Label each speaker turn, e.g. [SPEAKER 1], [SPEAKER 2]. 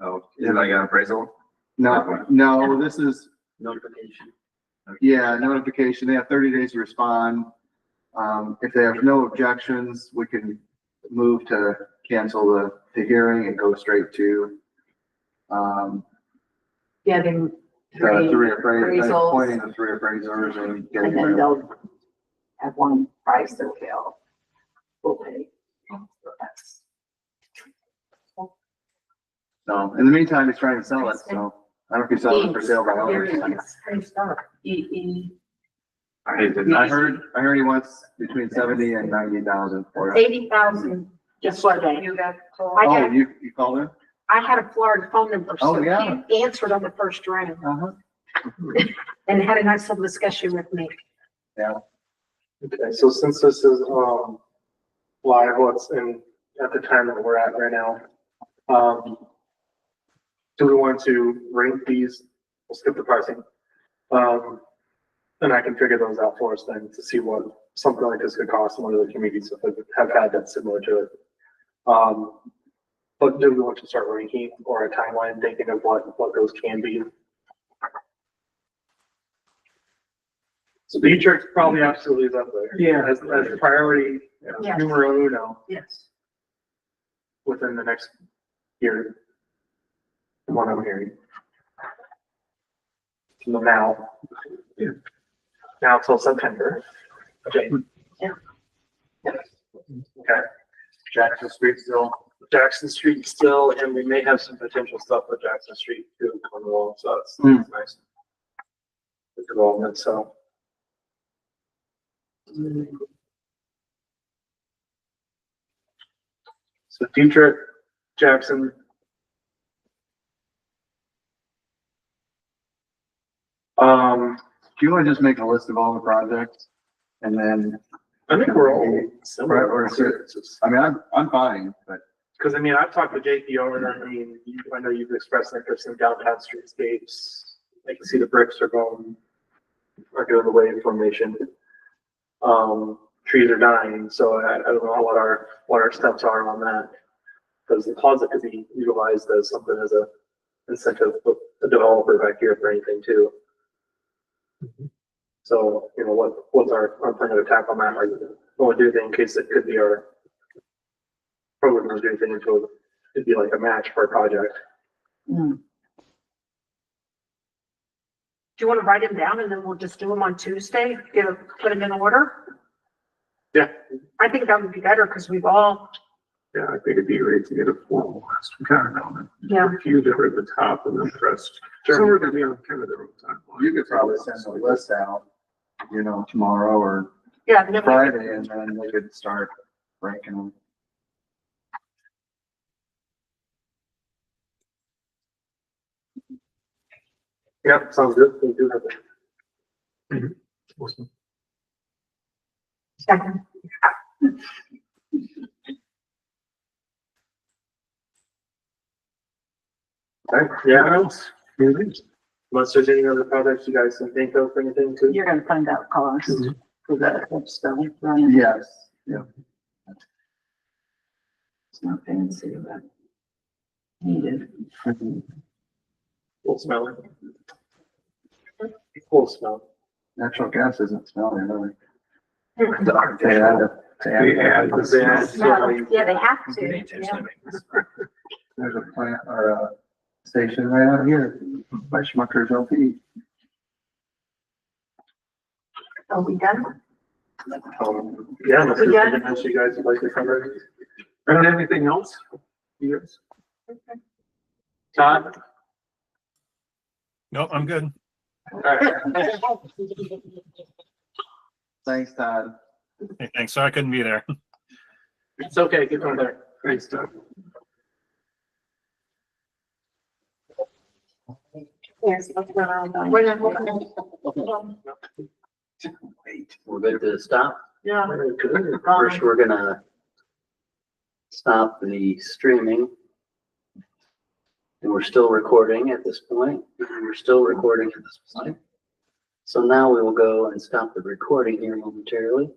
[SPEAKER 1] Oh, is it like an appraisal?
[SPEAKER 2] No, no, this is,
[SPEAKER 1] Notification.
[SPEAKER 2] yeah, notification. They have thirty days to respond. Um, if they have no objections, we can move to cancel the, the hearing and go straight to, um,
[SPEAKER 3] getting
[SPEAKER 2] the
[SPEAKER 3] three,
[SPEAKER 2] three appraisals,
[SPEAKER 3] appraisals.
[SPEAKER 2] appointing the three appraisers and getting
[SPEAKER 3] and then
[SPEAKER 2] them.
[SPEAKER 3] they'll have one price that they'll, will pay. So that's-
[SPEAKER 2] So, in the meantime, he's trying to sell it, so I don't know if he's selling it for sale by owner.
[SPEAKER 3] E, E,
[SPEAKER 1] I hate it.
[SPEAKER 2] I heard, I heard he wants between seventy and ninety thousand for it.
[SPEAKER 4] Eighty thousand, just like
[SPEAKER 3] you got
[SPEAKER 4] I
[SPEAKER 3] called.
[SPEAKER 2] Oh,
[SPEAKER 4] got-
[SPEAKER 2] you, you called him?
[SPEAKER 4] I had a Florida phone number,
[SPEAKER 2] Oh,
[SPEAKER 4] so
[SPEAKER 2] yeah.
[SPEAKER 4] he answered on the first round
[SPEAKER 2] Uh-huh.
[SPEAKER 4] and had a nice little discussion with me.
[SPEAKER 5] Okay, so since this is, um, live, what's in, at the time that we're at right now, um, do we want to rank these? We'll skip the pricing. Um, and I can figure those out for us then to see what something like this could cost in one of the communities that have had that similar to it. Um, but do we want to start ranking or a timeline thinking of what, what those can be? So Beatrix probably absolutely is up there.
[SPEAKER 1] Yeah.
[SPEAKER 5] As, as priority
[SPEAKER 4] Yes.
[SPEAKER 5] numero uno
[SPEAKER 4] Yes.
[SPEAKER 5] within the next year. from What I'm hearing. From the now.
[SPEAKER 1] Yeah.
[SPEAKER 5] Now till September. Okay.
[SPEAKER 4] Yeah.
[SPEAKER 5] Okay. Jackson Street still, Jackson Street still, and we may have some potential stuff with Jackson Street too coming along, so that's
[SPEAKER 2] Hmm.
[SPEAKER 5] that's nice. The Development, so. So Dietrich, Jackson, um,
[SPEAKER 2] Do you want to just make a list of all the projects? And then,
[SPEAKER 5] I think we're all similar.
[SPEAKER 2] Right, we're similar. I mean, I'm, I'm fine, but
[SPEAKER 5] Cause I mean, I've talked to JP over there, I mean, you, I know you've expressed interest in downtown streetscapes. I can see the bricks are going, are doing the wave formation. Um, trees are dying, so I, I don't know what our, what our steps are on that. Cause the closet could be utilized as something as a incentive for the developer back here for anything too. So, you know, what, what's our, our plan of attack on that, like, what we do in case it could be our program was anything until it'd be like a match for a project.
[SPEAKER 3] Mm.
[SPEAKER 4] Do you want to write them down and then we'll just do them on Tuesday, get, a- put them in order?
[SPEAKER 5] Yeah.
[SPEAKER 4] I think that would be better because we've all,
[SPEAKER 6] Yeah, I think it'd be great to get a formal list. We kind of know
[SPEAKER 4] yeah,
[SPEAKER 6] that. A few that are at the top and then the rest.
[SPEAKER 5] Sure.
[SPEAKER 6] Some are gonna be on kind of their own timeline.
[SPEAKER 2] you could probably send the list out, you know, tomorrow or
[SPEAKER 4] yeah, and then we-
[SPEAKER 2] Friday, and then we could start ranking them.
[SPEAKER 5] Yep, sounds good. We do have that. Mm-hmm.
[SPEAKER 4] second.
[SPEAKER 5] Okay, yeah,
[SPEAKER 6] What else? Anything?
[SPEAKER 5] unless there's any other projects you guys can think of, or anything too.
[SPEAKER 3] You're gonna find out cost for that, that's the running.
[SPEAKER 2] Yes, Mm-hmm. yeah.
[SPEAKER 3] It's not fancy, but needed.
[SPEAKER 5] Cool smelling. Cool smell.
[SPEAKER 2] Natural gas isn't smelling, really.
[SPEAKER 4] Hmm.
[SPEAKER 2] They add it- they add it.
[SPEAKER 6] They add the
[SPEAKER 5] Yeah,
[SPEAKER 6] smell.
[SPEAKER 5] so we-
[SPEAKER 4] Yeah, they have to, yeah.
[SPEAKER 2] There's a plant or a station right out here by Schmucker's LP.
[SPEAKER 4] Are we done?
[SPEAKER 5] um, Yeah, unless there's
[SPEAKER 4] We got-
[SPEAKER 5] anything else you guys would like to cover.
[SPEAKER 6] I don't have anything else. You guys?
[SPEAKER 5] Todd?
[SPEAKER 7] No, I'm good.
[SPEAKER 5] Alright.
[SPEAKER 2] Thanks, Todd.
[SPEAKER 7] Hey, Thanks. Sorry I couldn't be there.
[SPEAKER 5] It's okay, get on there.
[SPEAKER 6] Great stuff.
[SPEAKER 4] Yes. that's what I'm doing. We're not hoping-
[SPEAKER 8] We're good to stop.
[SPEAKER 4] Yeah,
[SPEAKER 8] First, we're gonna stop the streaming. And we're still recording at this point. And We're still recording at this point. So now we will go and stop the recording here momentarily.